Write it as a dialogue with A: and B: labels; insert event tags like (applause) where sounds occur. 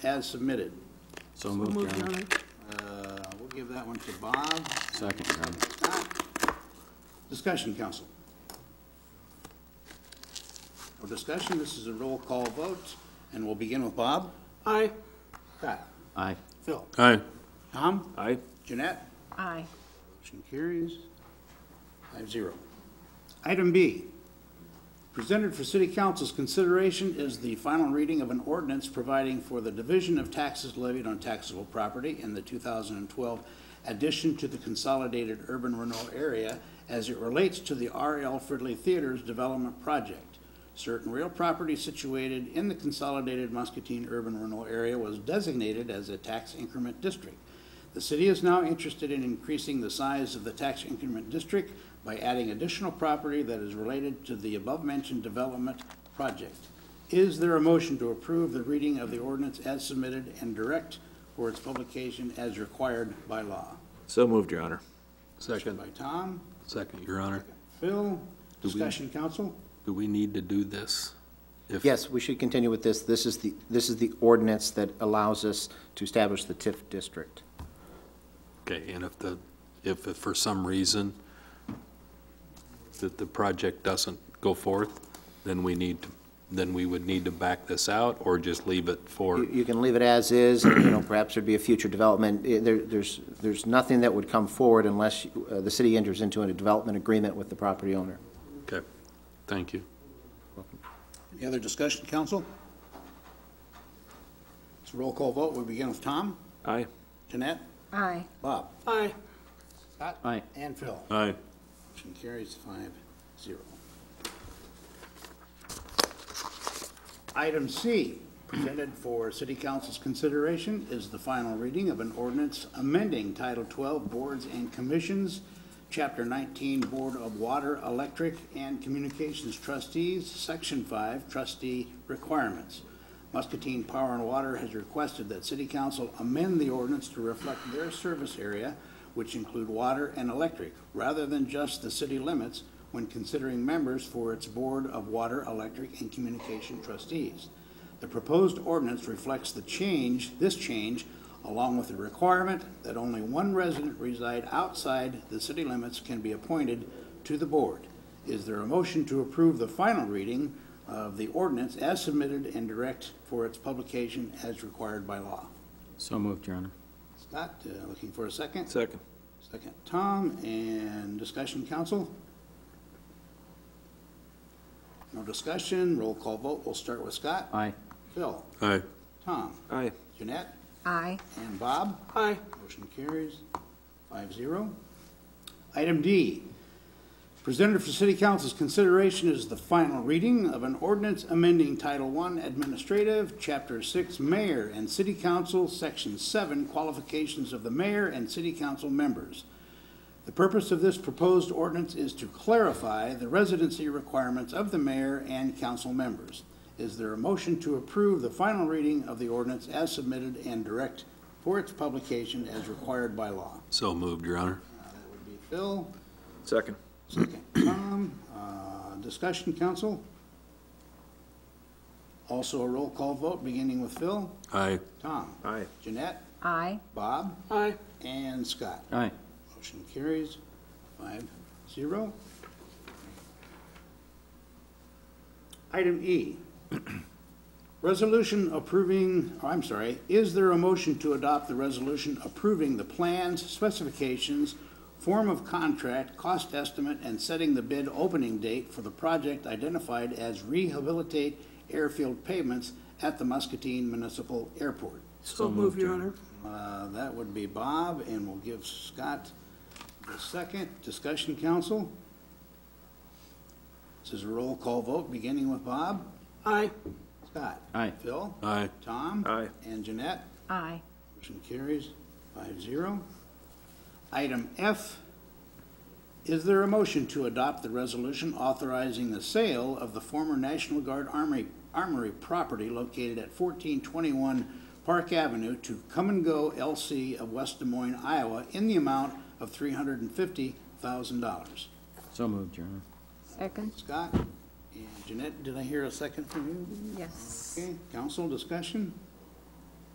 A: as submitted.
B: So moved, Your Honor.
A: Uh, We'll give that one to Bob.
B: Second, Your Honor.
A: Discussion, council. No discussion, this is a roll call vote, and we'll begin with Bob.
C: Aye.
A: Scott.
B: Aye.
A: Phil.
D: Aye.
A: Tom.
D: Aye.
A: Jeanette.
E: Aye.
A: Motion carries five zero. Item B, presented for city council's consideration is the final reading of an ordinance providing for the division of taxes levied on taxable property in the two thousand and twelve addition to the consolidated urban renewal area as it relates to the R.L. Fridley Theater's development project. Certain real property situated in the consolidated Muscatine urban renewal area was designated as a tax increment district. The city is now interested in increasing the size of the tax increment district by adding additional property that is related to the above-mentioned development project. Is there a motion to approve the reading of the ordinance as submitted and direct for its publication as required by law?
D: So moved, Your Honor.
A: Second. By Tom,
F: Second, Your Honor.
A: Phil, discussion, council?
F: Do we need to do this? If-
G: Yes, we should continue with this. This is the, this is the ordinance that allows us to establish the TIF district.
F: Okay, and if the, if if for some reason that the project doesn't go forth, then we need, to then we would need to back this out or just leave it for,
G: You, you can leave it as is, and, you know, perhaps there'd be a future development. Eh, There, there's, there's nothing that would come forward unless uh, the city enters into a development agreement with the property owner.
F: okay, thank you.
A: Any other discussion, council? It's a roll call vote, we begin with Tom,
D: Aye.
A: Jeanette,
E: Aye.
A: Bob,
C: Aye.
A: Scott,
B: Aye.
A: and Phil.
D: Aye.
A: Motion carries five zero. Item C, presented for city council's consideration, is the final reading of an ordinance amending Title 12 Boards and Commissions, Chapter 19 Board of Water, Electric, and Communications Trustees, Section 5 Trustee Requirements. Muscatine Power and Water has requested that city council amend the ordinance to reflect their service area, which include water and electric, rather than just the city limits when considering members for its Board of Water, Electric, and Communication Trustees. The proposed ordinance reflects the change, this change, along with the requirement that only one resident reside outside the city limits can be appointed to the board. Is there a motion to approve the final reading of the ordinance as submitted and direct for its publication as required by law?
B: So moved, Your Honor.
A: Scott, uh, looking for a second?
D: Second.
A: Second, Tom, and discussion, council? No discussion, roll call vote, we'll start with Scott.
B: Aye.
A: Phil,
F: Aye.
A: Tom,
D: Aye.
A: Jeanette,
E: Aye.
A: and Bob?
C: Aye.
A: Motion carries five zero. Item D, presented for city council's consideration is the final reading of an ordinance amending Title I Administrative, Chapter Six, Mayor and City Council, Section Seven, Qualifications of the Mayor and City Council Members. The purpose of this proposed ordinance is to clarify the residency requirements of the mayor and council members. Is there a motion to approve the final reading of the ordinance as submitted and direct for its publication as required by law?
F: So moved, Your Honor.
A: Uh, That would be Phil,
D: Second.
A: second Tom. Uh, Discussion, council? Also a roll call vote, beginning with Phil,
F: Aye.
A: Tom,
D: Aye.
A: Jeanette,
E: Aye.
A: Bob,
C: Aye.
A: and Scott.
B: Aye.
A: Motion carries five zero. Item E, (clears throat) resolution approving, oh, I'm sorry, is there a motion to adopt the resolution approving the plans, specifications, form of contract, cost estimate, and setting the bid opening date for the project identified as rehabilitate airfield pavements at the Muscatine Municipal Airport?
C: So moved, Your Honor.
A: Uh, That would be Bob, and we'll give Scott the second. Discussion, council? This is a roll call vote, beginning with Bob.
C: Aye.
A: Scott?
B: Aye.
A: Phil?
F: Aye.
A: Tom?
D: Aye.
A: And Jeanette?
E: Aye.
A: Motion carries five zero. Item F, is there a motion to adopt the resolution authorizing the sale of the former National Guard Armory, Armory property located at fourteen twenty-one Park Avenue to Come and Go LC of West Des Moines, Iowa, in the amount of three hundred and fifty thousand dollars?
B: So moved, Your Honor.
E: Second?
A: Scott and Jeanette, did I hear a second from you?
E: Yes.
A: Okay, council discussion?